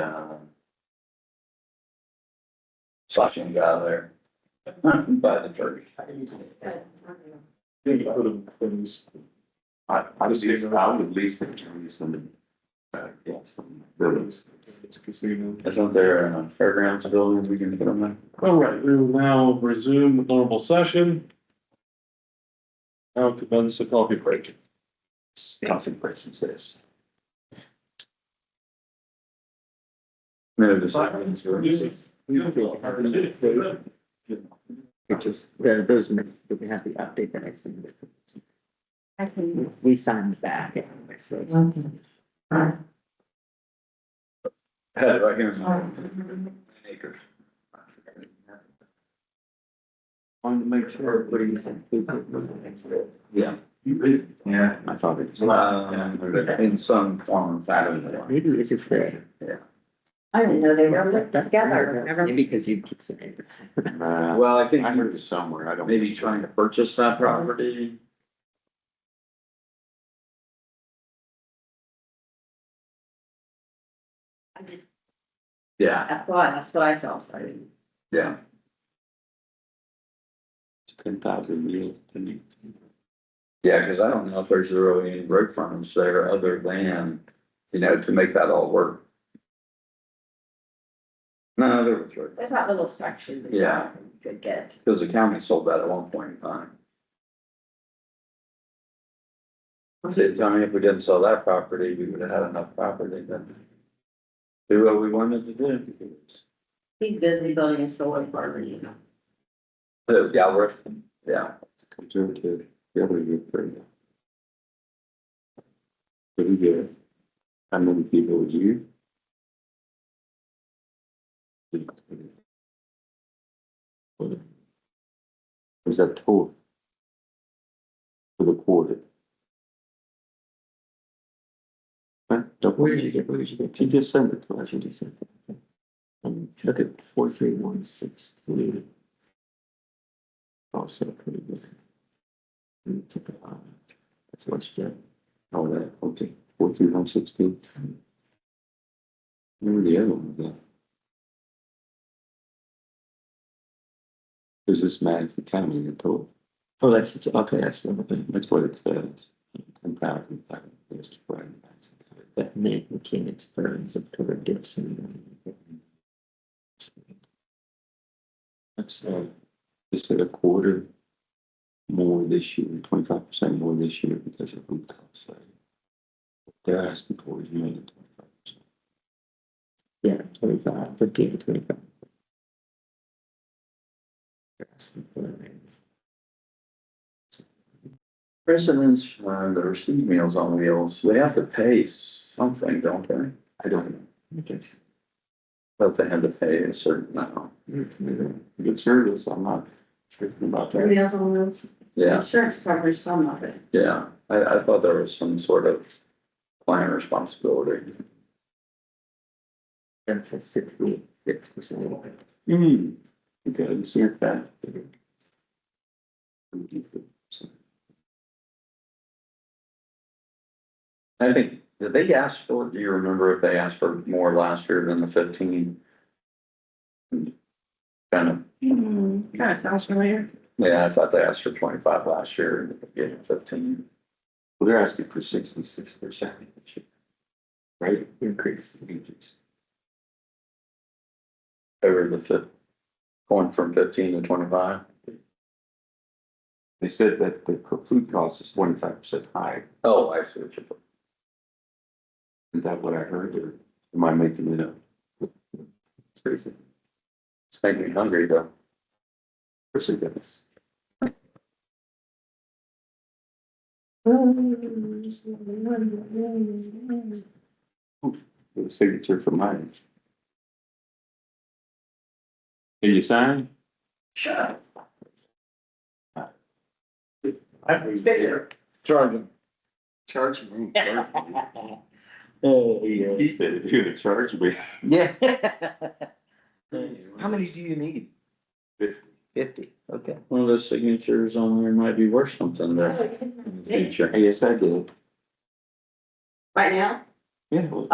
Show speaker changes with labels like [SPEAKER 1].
[SPEAKER 1] Um, Flushing got there. By the church.
[SPEAKER 2] think I would have things.
[SPEAKER 1] I, I would lease, I would lease the trees and the, uh, yes, buildings.
[SPEAKER 2] It's a casino.
[SPEAKER 1] Isn't there a fairgrounds building we can put them in?
[SPEAKER 2] All right, we will now resume the normal session. Now commence the coffee break.
[SPEAKER 1] Concentrations this. No, this.
[SPEAKER 3] It just, there- those, minutes that we have the update that I sent.
[SPEAKER 4] I can.
[SPEAKER 3] We signed back. anyway, so it's-
[SPEAKER 1] Head right here. Acres.
[SPEAKER 3] Wanted to make sure everybody's included.
[SPEAKER 1] Yeah. Yeah.
[SPEAKER 3] My father.
[SPEAKER 1] Um, in some form or fashion.
[SPEAKER 3] Maybe this is fair.
[SPEAKER 4] I didn't know they were linked together, remember?
[SPEAKER 3] Because you keep saying.
[SPEAKER 1] Well, I Mm-hmm. think
[SPEAKER 5] I heard it
[SPEAKER 1] he's
[SPEAKER 5] somewhere, I don't.
[SPEAKER 1] maybe trying to purchase that property.
[SPEAKER 4] I just,
[SPEAKER 1] Yeah,
[SPEAKER 4] I thought, that's what I saw, so I didn't.
[SPEAKER 1] yeah.
[SPEAKER 5] Ten thousand meals, didn't you?
[SPEAKER 1] Yeah, cause I don't know if there's really any road frontage there other than, you know, to make that all work. No, there was road,
[SPEAKER 4] There's that little section that
[SPEAKER 1] Yeah.
[SPEAKER 4] you could get.
[SPEAKER 1] cause the county sold that at one point in time. That's it, I mean, if we didn't sell that property, we would have had enough property then. Do what we wanted to do.
[SPEAKER 4] He's busy building a solar farm, you know.
[SPEAKER 1] The Galbraith, yeah,
[SPEAKER 5] Conservative, yeah, we did pretty good. Pretty good. How many people would you? Was that total? For the quarter? Huh?
[SPEAKER 3] Where did you get, where did you get?
[SPEAKER 5] She just sent it to us.
[SPEAKER 3] What you just said. And look at four, three, one, six, three.
[SPEAKER 5] Oh,
[SPEAKER 3] Also pretty good. And it's a lot. That's what's good.
[SPEAKER 5] Oh, that, okay, four three one sixteen. Remember the other one, yeah. Is this Madison County in total?
[SPEAKER 3] Oh, that's, it's- okay, that's the other thing.
[SPEAKER 5] That's what it says. Ten thousand five hundred is right in Madison County.
[SPEAKER 3] That made mechanics burns of Twitter Gibson.
[SPEAKER 5] That's, uh, just at a quarter more this year, twenty-five percent more this year because of food costs. so They're asking for is more than twenty-five percent.
[SPEAKER 3] Yeah, twenty-five, fifteen, twenty-five. That's important.
[SPEAKER 1] residents, uh, the receive meals on wheels, they have to pay something, don't they?
[SPEAKER 5] I don't know.
[SPEAKER 3] I guess.
[SPEAKER 1] But they had to pay a certain amount,
[SPEAKER 5] Good service, I'm not tripping about that.
[SPEAKER 4] Everybody else on those,
[SPEAKER 1] yeah,
[SPEAKER 4] insurance covers some of it.
[SPEAKER 1] yeah, I, I thought there was some sort of client responsibility.
[SPEAKER 3] That's a sixty-six percent.
[SPEAKER 5] Hmm, okay, you see it back.
[SPEAKER 1] I think, did they ask for, do you remember if they asked for more last year than the fifteen? Kind of,
[SPEAKER 4] Hmm, kind of sounds familiar.
[SPEAKER 1] yeah, I thought they asked for twenty-five last year, and they gave them fifteen.
[SPEAKER 5] Well, they're asking for sixty-six percent. Right,
[SPEAKER 3] Increase.
[SPEAKER 5] increase.
[SPEAKER 1] Over the fif, going from fifteen to twenty-five,
[SPEAKER 5] They said that the co- food cost is twenty-five percent higher,
[SPEAKER 1] oh, I see what you're.
[SPEAKER 5] is that what I heard, or am I making it up?
[SPEAKER 1] It's crazy. It's making me hungry though.
[SPEAKER 5] Percent goodness. The signature for mine. Did you sign?
[SPEAKER 4] Sure.
[SPEAKER 2] I was
[SPEAKER 1] Charging.
[SPEAKER 3] Oh,
[SPEAKER 5] He said, if you're gonna charge me.
[SPEAKER 3] Yeah.
[SPEAKER 1] How many do you need?
[SPEAKER 3] Fifty, okay.
[SPEAKER 1] One of those signatures on there might be worth something there. in the future.
[SPEAKER 5] Yes, I did.
[SPEAKER 4] Right now?
[SPEAKER 5] Yeah. well,